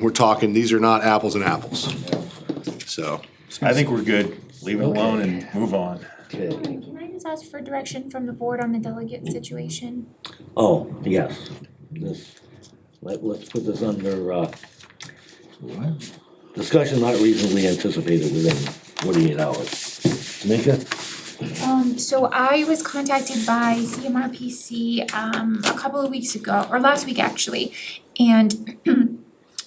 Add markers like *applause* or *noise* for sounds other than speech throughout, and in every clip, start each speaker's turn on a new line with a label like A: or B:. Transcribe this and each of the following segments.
A: We're talking, these are not apples and apples. So,
B: I think we're good. Leave it alone and move on.
C: Okay.
D: Can I just ask for direction from the board on the delegate situation?
C: Oh, yes, this, let, let's put this under, uh, discussion not reasonably anticipated within forty-eight hours. Tamika?
D: Um, so I was contacted by CMRPC, um, a couple of weeks ago, or last week actually, and *clears throat*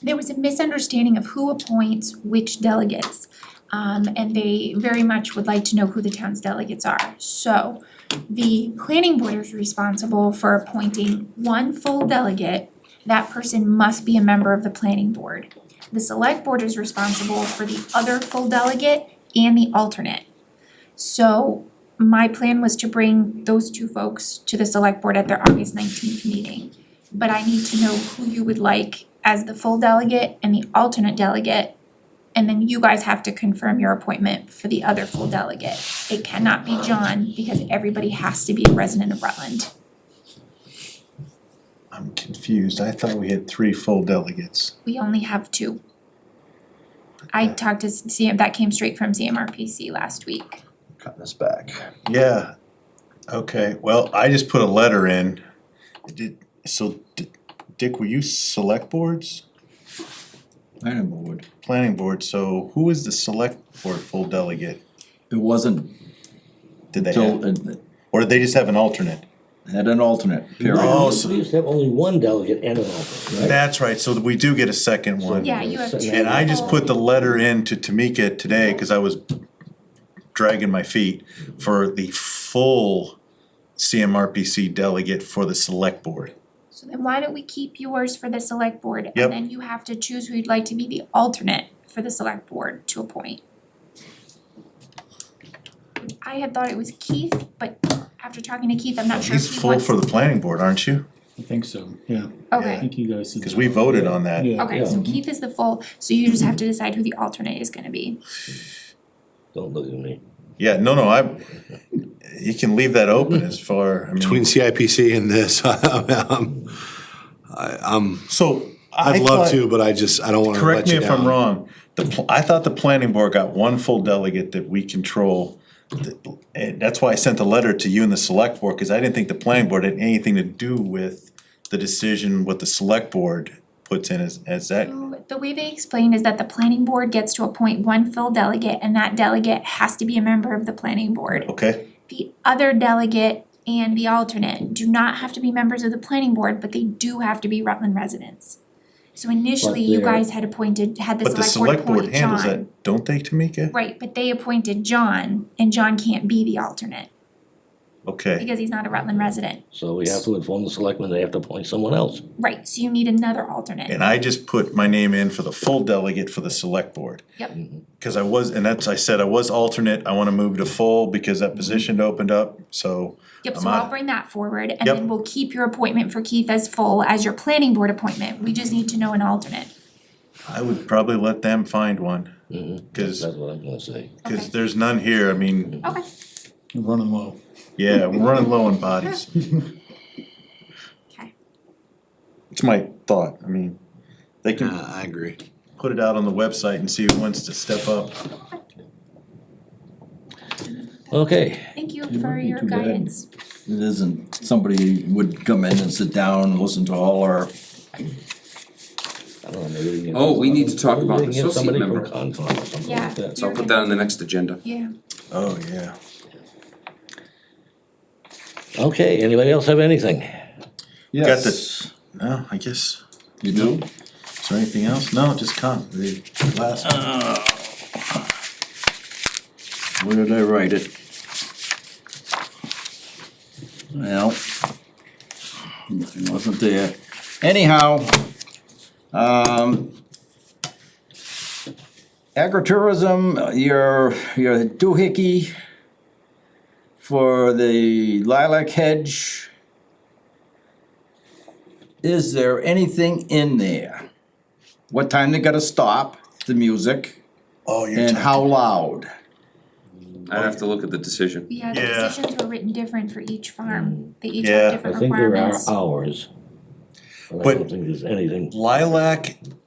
D: there was a misunderstanding of who appoints which delegates. Um, and they very much would like to know who the town's delegates are. So the planning board is responsible for appointing one full delegate. That person must be a member of the planning board. The select board is responsible for the other full delegate and the alternate. So my plan was to bring those two folks to the select board at their August nineteenth meeting. But I need to know who you would like as the full delegate and the alternate delegate. And then you guys have to confirm your appointment for the other full delegate. It cannot be John because everybody has to be a resident of Rutland.
E: I'm confused. I thought we had three full delegates.
D: We only have two. I talked to CM, that came straight from CMRPC last week.
E: Cutting us back. Yeah. Okay, well, I just put a letter in. Did, so, D- Dick, were you select boards?
F: Planning board.
E: Planning board, so who is the select board full delegate?
F: It wasn't
E: Did they
F: till,
E: have,
F: it
E: or did they just have an alternate?
F: had an alternate period.
E: Oh,
C: We
E: so,
C: used to have only one delegate and an alternate, right?
E: that's right, so we do get a second one.
D: Yeah, you have two.
E: And I just put the letter in to Tamika today, cause I was dragging my feet for the full CMRPC delegate for the select board.
D: So then why don't we keep yours for the select board?
E: Yep.
D: And then you have to choose who you'd like to be the alternate for the select board to appoint. I had thought it was Keith, but after talking to Keith, I'm not sure if
E: He's
D: he
E: full
D: wants.
E: for the planning board, aren't you?
G: I think so, yeah, I
D: Okay,
G: think you guys. did
E: Cause
G: that.
E: we voted on that.
G: Yeah.
D: okay, so Keith is the full, so you just have to decide who the alternate is gonna be.
C: Don't look at me.
E: Yeah, no, no, I, you can leave that open as far, I
A: between
E: mean,
A: CIPC and this, *laughs* I'm,
E: so. I
A: I'd love
E: thought-
A: to, but I just, I don't wanna let
E: Correct me
A: you down.
E: if I'm wrong, the, pl- I thought the planning board got one full delegate that we control. Th- And that's why I sent the letter to you and the select board, cause I didn't think the planning board had anything to do with the decision what the select board puts in as, as that.
D: So The way they explained is that the planning board gets to appoint one full delegate and that delegate has to be a member of the planning board.
E: Okay,
D: the other delegate and the alternate do not have to be members of the planning board, but they do have to be Rutland residents. So initially, you
C: But they're-
D: guys had appointed, had
E: but the
D: the select
E: select
D: board
E: board
D: appoint
E: handles
D: John.
E: that, don't they, Tamika?
D: Right, but they appointed John, and John can't be the alternate,
E: Okay,
D: because he's not a Rutland resident.
C: So we have to inform the selectmen they have to appoint someone else.
D: Right, so you need another alternate.
E: and I just put my name in for the full delegate for the select board.
D: Yep,
C: Mm-hmm.
E: Cause I was, and that's, I said I was alternate, I wanna move to full because that position opened up, so.
D: yep,
E: I'm
D: so
E: on
D: I'll
E: it.
D: bring that forward, and
E: Yep.
D: then we'll keep your appointment for Keith as full as your planning board appointment. We just need to know an alternate.
E: I would probably let them find one. Cause,
C: That's what I'm gonna say.
D: Okay.
E: cause there's none here, I mean,
D: Okay,
G: We're Running low.
E: yeah, we're running low on bodies.
D: okay.
E: It's my thought, I mean, they can
A: Uh, I agree.
E: put it out on the website and see who wants to step up.
C: Okay,
D: Thank you for
F: be
D: your
F: too bad.
D: guidance.
F: It isn't, somebody would come in and sit down and listen to all our,
C: I don't know, maybe we can.
H: Oh, we need to talk
C: maybe
H: about
C: we
H: the
C: can get
H: associate
C: somebody from
H: member.
C: Concom or something
D: Yeah.
C: like that.
H: So I'll put that on the next agenda.
D: Yeah.
E: Oh, yeah.
C: Okay, anybody else have anything?
E: Got
F: yes.
E: No, I guess,
F: You do?
E: is there anything else? No, just con, the last.
F: Where did I write it? Well, it wasn't there. Anyhow, um, agritourism, your, your doohickey for the lilac hedge. Is there anything in there? What time they gotta stop the music
E: Oh, you're
F: and
E: talking-
F: how loud?
H: I'd have to look at the decision.
D: Yeah, the
E: Yeah.
D: decisions were written different for each farm. They each
E: Yeah.
D: have
C: I
D: different
C: think there are
D: requirements.
C: hours. But I
E: But-
C: don't think there's anything.
E: Lilac